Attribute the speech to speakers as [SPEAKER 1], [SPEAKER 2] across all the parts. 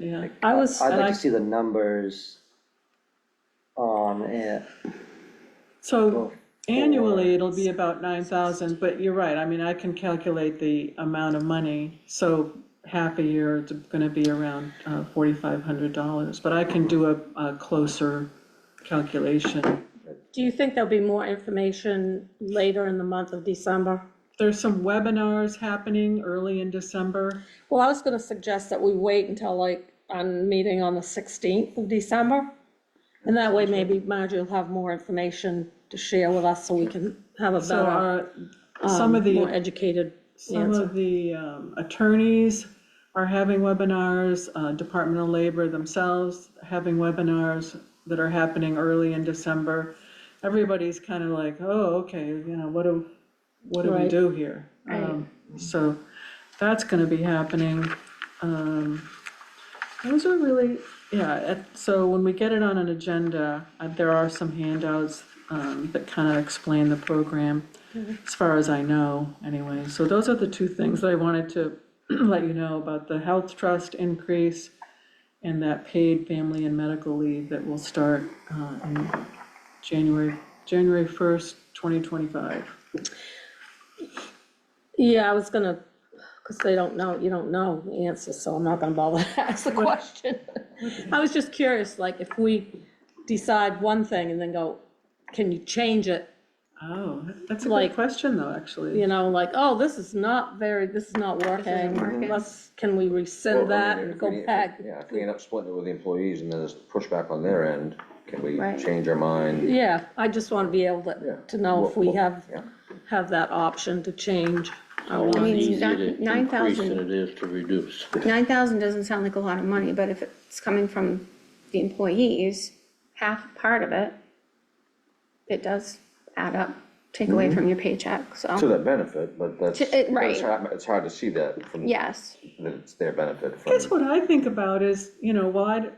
[SPEAKER 1] Yeah, I was,
[SPEAKER 2] I'd
[SPEAKER 1] and
[SPEAKER 2] like
[SPEAKER 1] I-
[SPEAKER 2] to see the numbers on it.
[SPEAKER 1] so annually, it'll be about nine thousand, but you're right, I mean, I can calculate the amount of money. So half a year, it's gonna be around uh, forty-five hundred dollars, but I can do a, a closer calculation.
[SPEAKER 3] Do you think there'll be more information later in the month of December?
[SPEAKER 1] There's some webinars happening early in December.
[SPEAKER 3] Well, I was gonna suggest that we wait until like our meeting on the sixteenth of December. And that way maybe Margie will have more information to share with us so we can have a
[SPEAKER 1] So
[SPEAKER 3] better,
[SPEAKER 1] our, some of the.
[SPEAKER 3] um, more educated
[SPEAKER 1] Some
[SPEAKER 3] answer.
[SPEAKER 1] of the um, attorneys are having webinars, uh, Department of Labor themselves having webinars that are happening early in December. Everybody's kind of like, oh, okay, you know, what do, what do we
[SPEAKER 3] Right.
[SPEAKER 1] do here? Um, So that's gonna be happening. Um, Those are really, yeah, it- so when we get it on an agenda, uh, there are some handouts um, that kind of explain the program,
[SPEAKER 3] Mm-hmm.
[SPEAKER 1] as far as I know, anyway. So those are the two things that I wanted to let you know about the health trust increase and that paid family and medical leave that will start uh, in January, January 1st, 2025.
[SPEAKER 3] Yeah, I was gonna, because they don't know, you don't know the answer, so I'm not gonna bother to ask the question. I was just curious, like, if we decide one thing and then go, can you change it?
[SPEAKER 1] Oh, that's a good
[SPEAKER 3] Like-
[SPEAKER 1] question, though, actually.
[SPEAKER 3] You know, like, oh, this is not very, this is not working,
[SPEAKER 4] working.
[SPEAKER 3] let's, can we
[SPEAKER 5] Well, I
[SPEAKER 3] rescind
[SPEAKER 5] mean,
[SPEAKER 3] that
[SPEAKER 5] if
[SPEAKER 3] and
[SPEAKER 5] we
[SPEAKER 3] go
[SPEAKER 5] need- if we-
[SPEAKER 3] back?
[SPEAKER 5] Yeah, if we end up splitting it with the employees and there's pushback on their end, can we
[SPEAKER 4] Right.
[SPEAKER 5] change our mind?
[SPEAKER 3] Yeah, I just wanna be able
[SPEAKER 5] Yeah.
[SPEAKER 3] to, to know if we
[SPEAKER 5] Well, well,
[SPEAKER 3] have,
[SPEAKER 5] yeah.
[SPEAKER 3] have that option to change.
[SPEAKER 6] How much
[SPEAKER 4] I mean,
[SPEAKER 6] easier
[SPEAKER 4] nine-
[SPEAKER 6] to
[SPEAKER 4] nine
[SPEAKER 6] increase
[SPEAKER 4] thousand.
[SPEAKER 6] than it is to reduce.
[SPEAKER 4] Nine thousand doesn't sound like a lot of money, but if it's coming from the employees, half part of it, it does add up, take
[SPEAKER 5] Mm-hmm.
[SPEAKER 4] away from your paycheck,
[SPEAKER 5] To
[SPEAKER 4] so,
[SPEAKER 5] their benefit, but that's,
[SPEAKER 4] To- it- right.
[SPEAKER 5] it's hard, it's hard to see that from, that
[SPEAKER 4] yes.
[SPEAKER 5] it's their benefit from.
[SPEAKER 1] Guess what I think about is, you know, while I'd,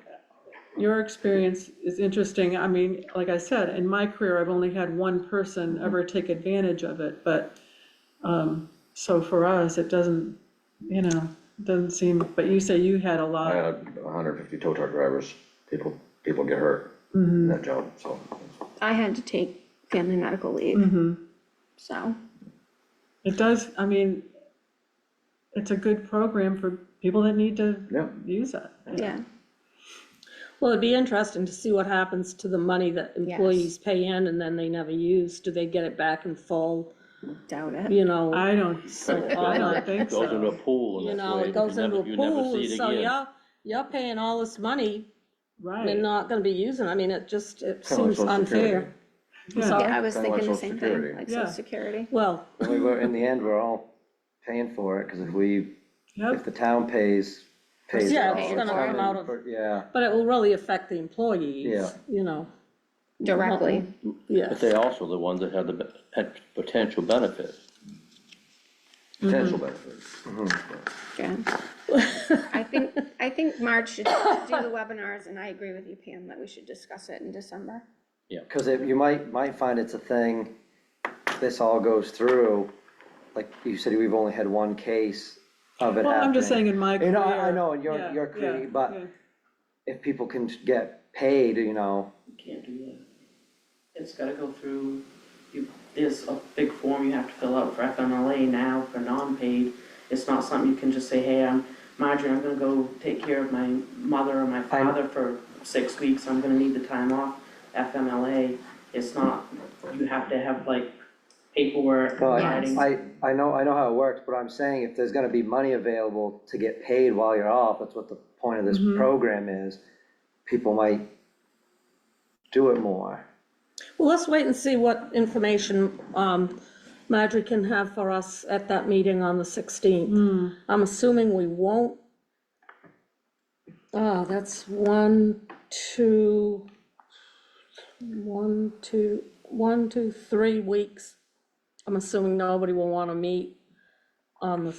[SPEAKER 1] your experience is interesting, I mean, like I said, in my career, I've only had one person
[SPEAKER 3] Mm-hmm.
[SPEAKER 1] ever take advantage of it, but, um, so for us, it doesn't, you know, doesn't seem, but you say you had a
[SPEAKER 5] I
[SPEAKER 1] lot,
[SPEAKER 5] had hundred fifty tow truck drivers, people, people get hurt in that job, so.
[SPEAKER 4] I had to take family medical leave. So,
[SPEAKER 1] it does, I mean, it's a good program for people that need to
[SPEAKER 5] Yeah.
[SPEAKER 1] use it.
[SPEAKER 4] yeah,
[SPEAKER 3] Well, it'd be interesting to see what happens to the money that employees pay in and then they never use, do they get it back in full,
[SPEAKER 4] doubt it.
[SPEAKER 3] you know?
[SPEAKER 1] I don't,
[SPEAKER 3] So,
[SPEAKER 1] I
[SPEAKER 3] I
[SPEAKER 1] don't think so.
[SPEAKER 6] Goes into a pool
[SPEAKER 3] You
[SPEAKER 6] and that's
[SPEAKER 3] know,
[SPEAKER 6] the way
[SPEAKER 3] it goes
[SPEAKER 6] you
[SPEAKER 3] into
[SPEAKER 6] never,
[SPEAKER 3] a
[SPEAKER 6] you never
[SPEAKER 3] pool,
[SPEAKER 6] see it
[SPEAKER 3] so
[SPEAKER 6] again.
[SPEAKER 3] you're, you're paying all this money and
[SPEAKER 1] Right,
[SPEAKER 3] not gonna be using, I mean, it just, it
[SPEAKER 5] Kinda like
[SPEAKER 3] seems
[SPEAKER 5] Social Security.
[SPEAKER 3] unfair.
[SPEAKER 1] Yeah.
[SPEAKER 3] Sorry.
[SPEAKER 4] Yeah, I was
[SPEAKER 5] Kinda like
[SPEAKER 4] thinking the
[SPEAKER 5] Social
[SPEAKER 4] same
[SPEAKER 5] Security.
[SPEAKER 4] thing, like
[SPEAKER 1] Yeah.
[SPEAKER 4] social security.
[SPEAKER 3] Well,
[SPEAKER 2] And we were, in the end, we're all paying for it, because if we, if
[SPEAKER 1] yep,
[SPEAKER 2] the town pays, pays. it
[SPEAKER 3] Yeah,
[SPEAKER 2] all,
[SPEAKER 4] it's
[SPEAKER 3] gonna
[SPEAKER 2] coming
[SPEAKER 3] come out of-
[SPEAKER 2] for- Yeah,
[SPEAKER 3] but it will really affect the employees,
[SPEAKER 2] Yeah.
[SPEAKER 3] you know,
[SPEAKER 4] Directly,
[SPEAKER 3] yeah.
[SPEAKER 6] But they also the ones that had the, be- had potential benefit.
[SPEAKER 5] potential benefit.
[SPEAKER 4] yeah. I think, I think March should do the webinars, and I agree with you, Pam, that we should discuss it in December.
[SPEAKER 2] because you might, might find it's a thing, if this all goes through, like you said, we've only had one case of it happening.
[SPEAKER 1] well, I'm just saying in my career.
[SPEAKER 2] You know, I- I know, in your-
[SPEAKER 1] yeah,
[SPEAKER 2] your
[SPEAKER 1] yeah,
[SPEAKER 2] career, but-
[SPEAKER 1] yeah.
[SPEAKER 2] If people can get paid, you know,
[SPEAKER 7] Can't do that. It's gotta go through, you, there's a big form you have to fill out for FMLA now for non-paid. It's not something you can just say, hey, I'm Marjorie, I'm gonna go take care of my mother or my father for six weeks, I'm gonna need the time off. FMLA, it's not, you have to have like paperwork,
[SPEAKER 2] Well,
[SPEAKER 7] writing.
[SPEAKER 2] I, I know, I know how it works, but I'm saying if there's gonna be money available to get paid while you're off, that's what the point of this program is. People might do it more.
[SPEAKER 3] Well, let's wait and see what information um, Marjorie can have for us at that meeting on the 16th. I'm assuming we won't. Oh, that's one, two, one, two, one, two, three weeks. I'm assuming nobody will want to meet on the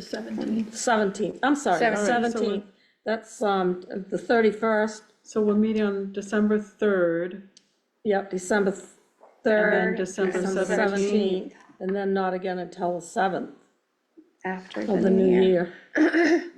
[SPEAKER 4] Seventeen.
[SPEAKER 3] 17th, I'm sorry, the
[SPEAKER 4] Seventeen.
[SPEAKER 1] Alright, so we-
[SPEAKER 3] 17th. That's um, the 31st,
[SPEAKER 1] So we'll meet on December third,
[SPEAKER 3] yep, December
[SPEAKER 1] and
[SPEAKER 3] 3rd.
[SPEAKER 1] then December
[SPEAKER 3] December
[SPEAKER 1] seventeenth.
[SPEAKER 3] seventeenth, and then not again until the seventh
[SPEAKER 4] After
[SPEAKER 3] of the new year.